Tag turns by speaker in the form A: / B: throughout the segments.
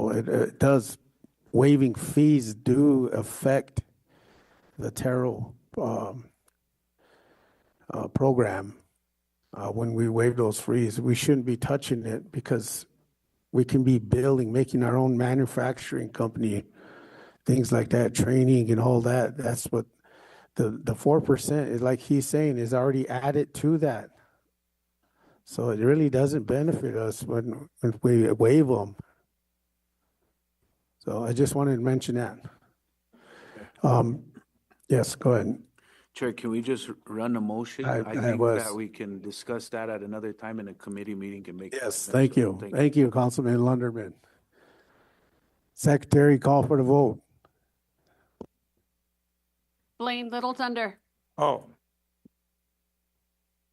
A: know, it, it uh, does, waiving fees do affect the Terrell, um, uh, program. Uh, when we waive those fees, we shouldn't be touching it because we can be building, making our own manufacturing company, things like that, training and all that. That's what the, the four percent is like he's saying is already added to that. So it really doesn't benefit us when, when we waive them. So I just wanted to mention that. Um, yes, go ahead.
B: Chair, can we just run a motion?
A: I- I
B: think
A: was-
B: that we can discuss that at another time in a committee meeting and make.
A: Yes,
B: comments.
A: thank you. Thank you, Councilman Lunderman. Secretary, call for the vote.
C: Blaine Little Thunder,
D: Oh.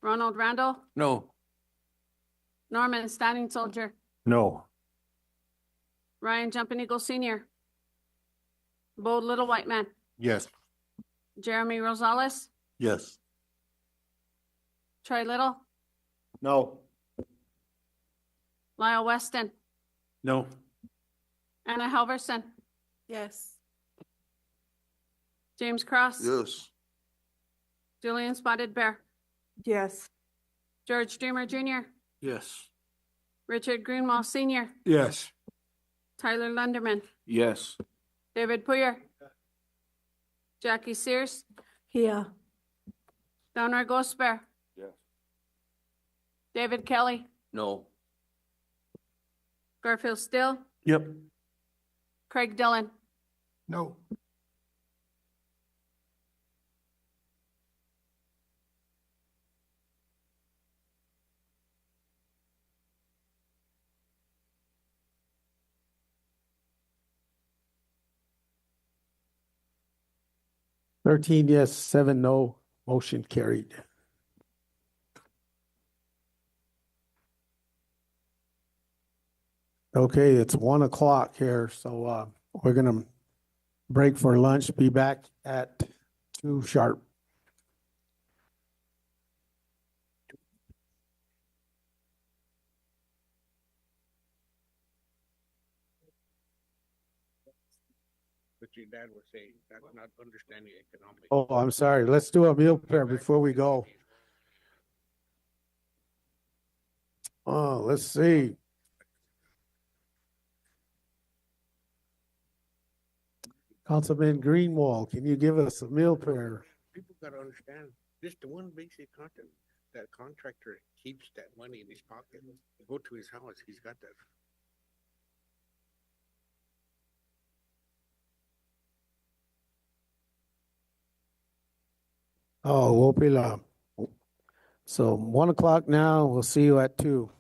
C: Ronald Randall,
D: No.
C: Norman Standing Soldier,
D: No.
C: Ryan Jumping Eagle Senior, Bo Little White Man,
D: Yes.
C: Jeremy Rosales,
D: Yes.
C: Troy Little,
D: No.
C: Lyle Weston,
D: No.
C: Anna Halverson,
E: Yes.
C: James Cross,
D: Yes.
C: Julian Spotted Bear,
E: Yes.
C: George Dreamer Junior,
D: Yes.
C: Richard Greenwall Senior,
D: Yes.
C: Tyler Lunderman,
B: Yes,
C: David Poyer, Jackie Sears,
E: Yeah.
C: Donner Gosper.
B: Yes.
C: David Kelly,
D: No.
C: Garfield Still,
D: Yep.
C: Craig Dillon.
D: No.
A: Thirteen yes, seven no, motion carried. Okay, it's one o'clock here, so uh, we're gonna break for lunch, be back at two sharp.
F: But your dad was saying, that's not understanding economics.
A: Oh, I'm sorry, let's do a meal prayer before we go. Oh, let's see. Councilman Greenwald, can you give us a meal prayer?
F: People gotta understand, just the one basic concept, that contractor keeps that money in his pocket, go to his house, he's got that.
A: Oh, Wopila. So one o'clock now, we'll see you at two.